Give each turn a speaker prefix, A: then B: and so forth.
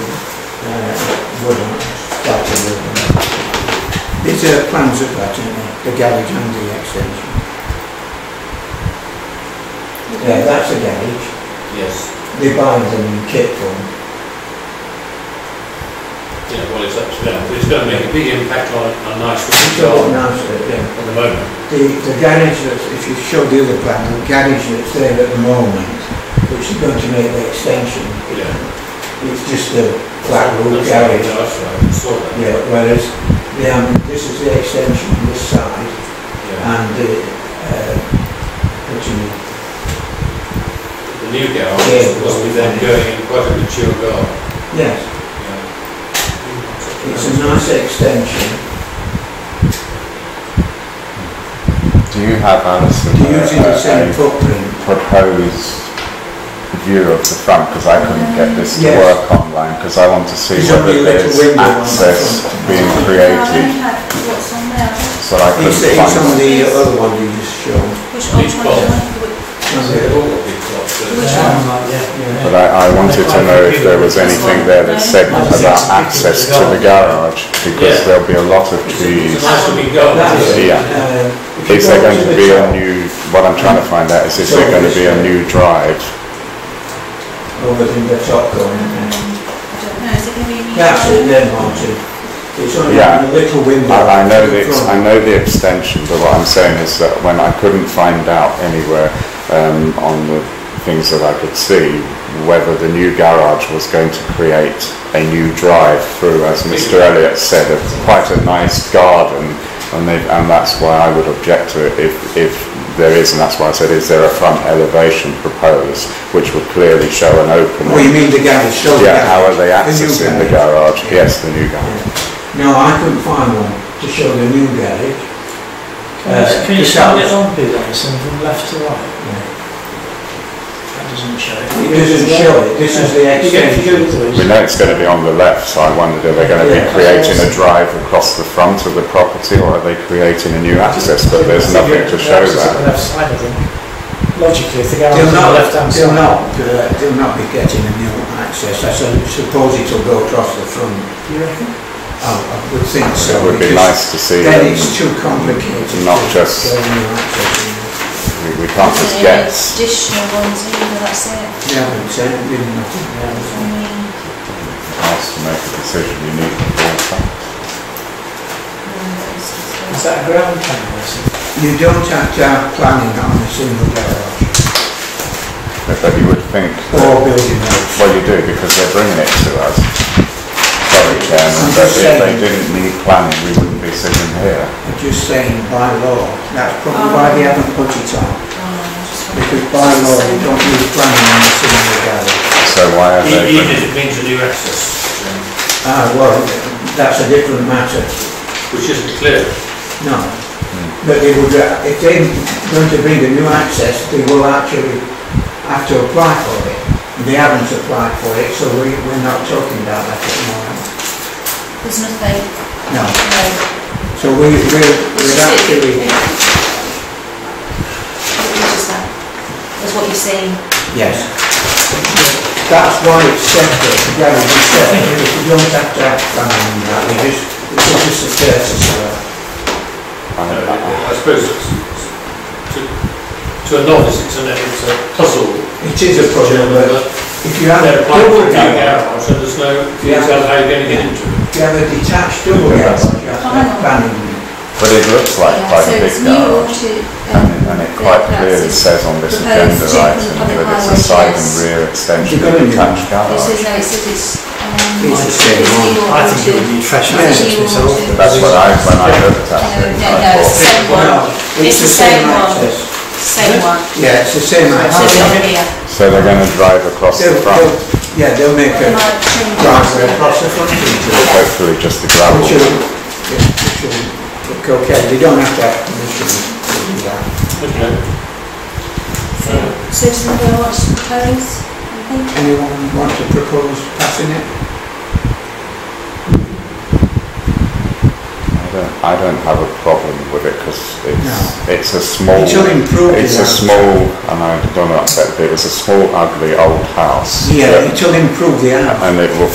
A: Uh, these uh, plans look like, don't they? The garage and the extension. Yeah, that's a garage.
B: Yes,
A: They buy them kit from.
B: yeah, well, it's up to them, but it's going to make a big impact on, on nice
A: It's
B: Reef
A: all
B: Garden
A: announced it, yeah.
B: at the moment.
A: The, the garage that's, if you show the other plan, the garage that's there at the moment, which is going to make the extension,
B: Yeah.
A: it's just a flat roof
B: That's
A: garage.
B: nice, right, I saw that.
A: Yeah, whereas the, um, this is the extension on this side
B: Yeah.
A: and the, uh, what do you mean?
B: The new garage must be then going in quite a mature garden.
A: Yes,
B: Yeah.
A: it's a nice extension.
C: Do you have, Alison,
A: They're
C: a,
A: using the same
C: a, a
A: footprint.
C: proposed view of the front? Because I couldn't get this to
A: Yes.
C: work online, because I want to see
A: There's
C: whether
A: only a little
C: there's
A: window on the
C: access
A: front.
C: being
D: I
C: created,
D: don't have what's on there.
C: so I
A: uh,
C: couldn't
A: It's, it's on
C: find it.
A: the other one you just showed.
D: Which one?
B: Which box?
A: That's
B: So
A: it.
B: they've all got big plots, so
D: Which
B: it's-
D: one?
A: Yeah.
C: But I, I wanted to know if there was anything there that said about access to the garage, because
B: Yeah.
C: there'll be a lot of
B: It's
C: trees.
B: a nice looking garden.
A: That is it.
B: isn't it?
C: Yeah.
A: Uh, if you
C: Is there
A: go
C: going to
A: the
C: be a
A: top-
C: new, what I'm trying to find out is, is there going to be a new drive?
A: Over in oh, the top
D: um,
A: corner. That's it
D: That's
A: then, Martin. It's only
C: Yeah.
A: a little window.
C: I, I know
A: in
C: the, ex- I
A: front.
C: know the extension, but what I'm saying is that when I couldn't find out anywhere, um, on the things that I could see, whether the new garage was going to create a new drive through, as Mr. Elliott said, a, quite a nice garden, and they, and that's why I would object to it if, if there is, and that's why I said, is there a front elevation proposed, which would clearly show an opening?
A: Oh, you mean the garage, show the
C: Yeah, how
A: garage.
C: are they
A: new
C: accessing the garage? Yes, the new garage.
A: Yeah. No, I couldn't find one to show the new garage.
E: Can
A: Uh,
E: you- Can you
A: the
E: start
A: south.
E: it on, please, Alison, from left to right? That doesn't show it.
A: It doesn't show it, this is the
E: You get to
A: extension.
E: do it,
C: We
E: please.
C: know it's going to be on the left, so I wondered, are they going to be
A: Yeah.
C: creating a drive across the front of the property, or are they creating a new access? But there's nothing to show
E: Access on
C: that.
E: the left side, I think. Logically, if the garage
A: They'll
E: is on the left
A: not,
E: hand
A: they'll
E: side.
A: not, uh, they'll not be getting a new access, I su- suppose it'll go across the front.
E: Do you reckon?
A: I I would think so.
C: It would be
A: because
C: nice to see um,
A: Then
C: them.
A: it's too complicated.
C: Not
A: to
C: just-
A: get a new access in.
C: We- We can't just guess.
D: Additional ones, either, that's it.
A: They haven't said, they've nothing.
D: I mean,
C: Asked to make a decision, you need the board facts.
D: no, it's just-
E: Is that a ground plan, Alison?
A: You don't have to have planning on a single garage
C: But- But you would think, that-
A: or building else.
C: well, you do, because they're bringing it to us. Sorry, Chairman,
A: I'm
C: but
A: just
C: if they
A: saying.
C: didn't need planning, we wouldn't be sitting here.
A: I'm just saying by law, that's probably why they haven't put it on,
D: oh, I just wanted-
A: because by law, you don't need planning on a single garage.
C: So why are they?
B: E- Even
C: bringing-
B: if it means a new access, um,
A: Ah, well, that's a different matter,
B: which isn't clear.
A: no. But they would, uh, if they're going to bring a new access, they will actually have to apply for it. And They haven't applied for it, so we, we're not talking about that at the moment,
D: There's nothing,
A: no.
D: no.
A: So we, we're,
D: It's
A: we're
D: just it-
A: actually,
D: it- It's just that, that's what you're seeing.
A: Yes. That's why it's separate, the garage is separate, because you don't have to have planning on that, we just, it's just a courtesy of that.
C: I
B: No,
C: don't know.
B: I suppose it's, it's- to, to a novice, it's a, it's a puzzle.
A: It is a problem,
B: Chairman,
A: but
B: but
A: if you have a
B: They're applying for
A: double
B: a new
A: garage,
B: garage, so there's no, you
A: Yeah.
B: tell how you're going to get into it.
A: if you have a detached double
C: Yeah.
A: garage, you have to have planning.
C: But it looks like
D: Yeah,
C: quite
D: so
C: a
D: it's
C: big
D: new
C: garage.
D: to,
C: And
D: um,
C: it- and it
D: the
C: quite
D: flats
C: clearly
D: is-
C: says on this
D: proposed
C: agenda
D: check
C: item that it's
D: on
C: a
D: highways,
C: side
D: yes.
C: and rear extension
A: You're
C: of a
A: gonna do
C: detached
D: It says,
C: garage.
D: no, it says it's, um.
A: It's the same
D: it's
A: one.
D: new
E: I think it
D: to-
E: would need fresh
D: it's
E: access
D: new
E: myself.
D: to-
C: But That's what I, when I looked at
D: No,
C: it,
D: no,
C: I
D: no, it's
C: thought,
D: the same
A: No,
D: one,
A: It's the same access.
D: same one.
A: Yeah, it's the same
D: So
A: access.
D: it's on here.
C: so they're gonna drive across the
A: They'll-
C: front,
A: they'll- Yeah, they'll make a
D: Might change it.
A: driveway across the front into it,
C: hopefully just the gravel.
A: which will, yeah, which will look okay, they don't have to have permission to do that.
B: Okay.
D: So does anybody want to propose? anything?
A: Anyone want to propose passing it?
C: I don't- I don't have a problem with it, because it's, it's a small,
A: It'll improve
C: it's
A: the
C: a
A: house.
C: small, and I don't know, but it was a small ugly old house.
A: Yeah, it'll improve the house.
C: And it will